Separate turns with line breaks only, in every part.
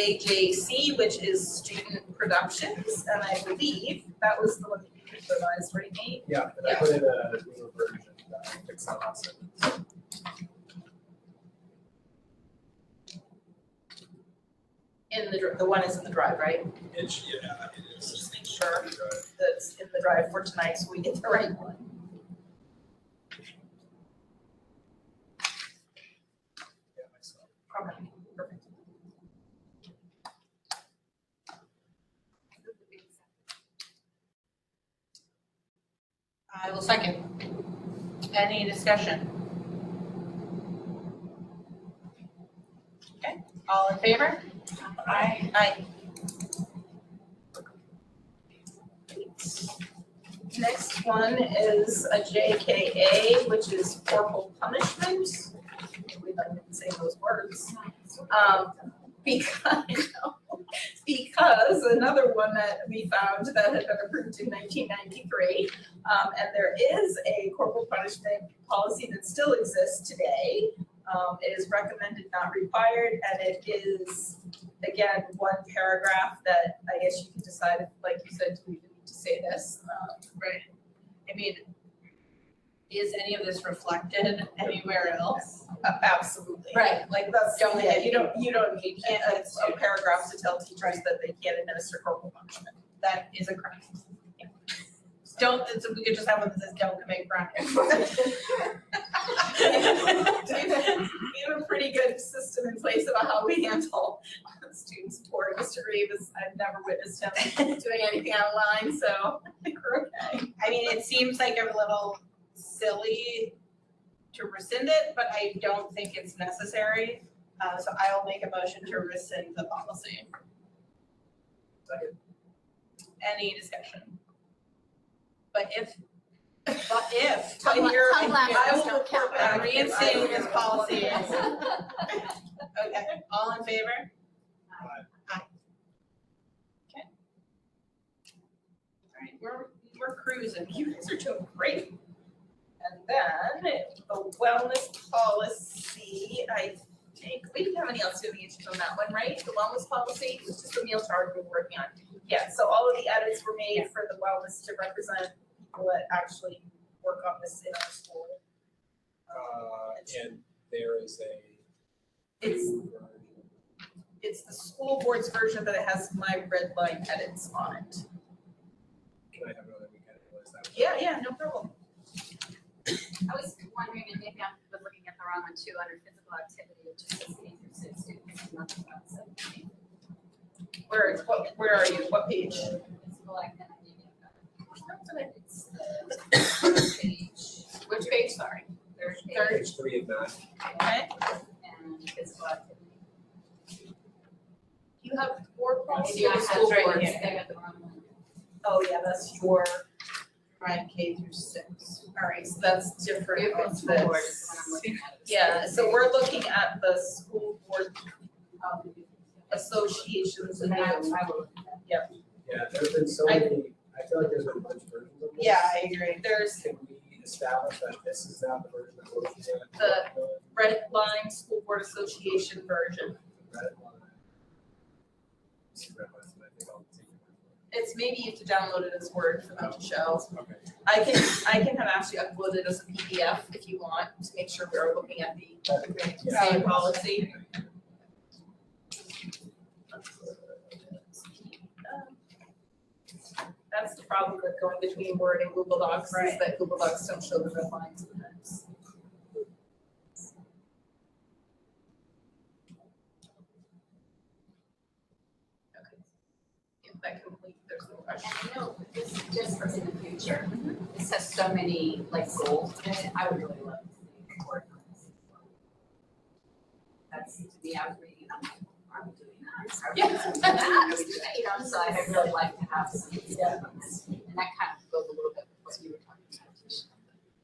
JJC, which is Student Productions, and I believe that was the one that you revised, right, Nate?
Yeah, and I
Yeah.
put in a newer version that I fixed that last sentence.
In the, dr- the one is in the drive, right?
It sh yeah, it
Let's
is.
Just make sure
Right.
that's in the drive for tonight, so we get the right one.
Yeah, myself.
Okay, perfect. I will second. Any discussion? Okay, all in favor? Aye. Aye. Next one is a JKA, which is corporal punishment. We don't even say those words. Um, because, because another one that we found that had been approved in nineteen ninety-three. Um, and there is a corporal punishment policy that still exists today. Um, it is recommended, not required, and it is, again, one paragraph that I guess you can decide, like you said, do we even need to say this? Uh, right, I mean, is any of this reflected anywhere else? Uh, Absolutely.
Right.
Like that's
Don't
something that
get-
you don't, you don't need
can't-
a- a paragraph to tell teachers that they can't administer corporal punishment.
That is a crime.
Don't, it's, we could just have one that says don't commit crime. We have a pretty good system in place about how we handle students. Poor Mr. Reeves, I've never witnessed him doing anything online, so I think we're okay.
I mean, it seems like a little silly to rescind it, but I don't think it's necessary. Uh, so I will make a motion to rescind the policy. Any discussion? But if, but if, but
Tongue-
here,
tongue lash
I will
don't
report
count.
back, reinstating this policy.
Yes.
Okay, oh, all in favor?
Aye.
Aye. Okay. All right, we're, we're cruising.
You guys are doing great. And then the wellness policy, I think, we didn't have any else doing issues on that one, right? The wellness policy, it was just the meal charge we were working on. Yeah, so all of the edits were made for the wellness to represent people that actually work on this in our school.
Uh, and there is a
It's,
new version.
it's the school board's version, but it has my red line edits on it.
Can I have another weekend to realize that?
Yeah, yeah, no problem.
I was wondering, and maybe I was looking at the wrong one too, under physical activity, it just says interested students, nothing about something.
Where, what, where are you? What page?
Physical activity. It's the third page, which page, sorry? Third page.
Page three of that,
Okay.
And physical activity.
You have four policies.
Maybe I
The
have
school
right
board's
here. I got the wrong one.
Oh, yeah, that's your prime K through six. All right, so that's different
Different
on
school board is
this.
what I'm looking at.
Yeah, so we're looking at the school board associations and
And I, I
that.
will.
yeah, there's been so
I-
many, I feel like there's been a bunch of versions of this.
I agree.
There's
Can we establish that this is now the version that we're looking at?
The- red line school board association version.
Red line. See red lines, and I think I'll take your
It's maybe you have to download it as Word for them to show.
word for it. Okay,
I can, I can have actually uploaded as a PDF if you want to make sure we're looking at the
That- yeah.
same policy. That's the problem with going between Word and Google Docs, is
Right.
that Google Docs don't show the red lines sometimes. Okay. If that complete, there's no question.
And I know this is just for in the future, this has so many like goals in it, I would really love to see it work on this. as well. That's to me, I was reading, I'm like, are we doing that? Are we
Yeah.
doing that? Are we doing that? You know, so I'd really like to have some stuff on this, and that kind of goes a little bit with what you were talking about. Tisha.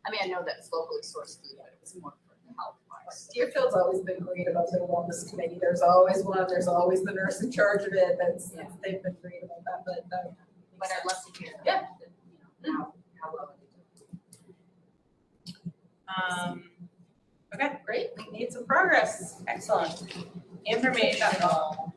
I mean, I know that's locally sourced food, but it was more for the health wise.
Deerfield's always been great about their wellness committee, there's always one, there's always the nurse in charge of it, that's,
Yeah.
they've been great about that, but, uh,
But I'd love to hear,
Yeah.
that, you know, how, how well they do.
Um,
okay, great, we made some progress, excellent.
informational.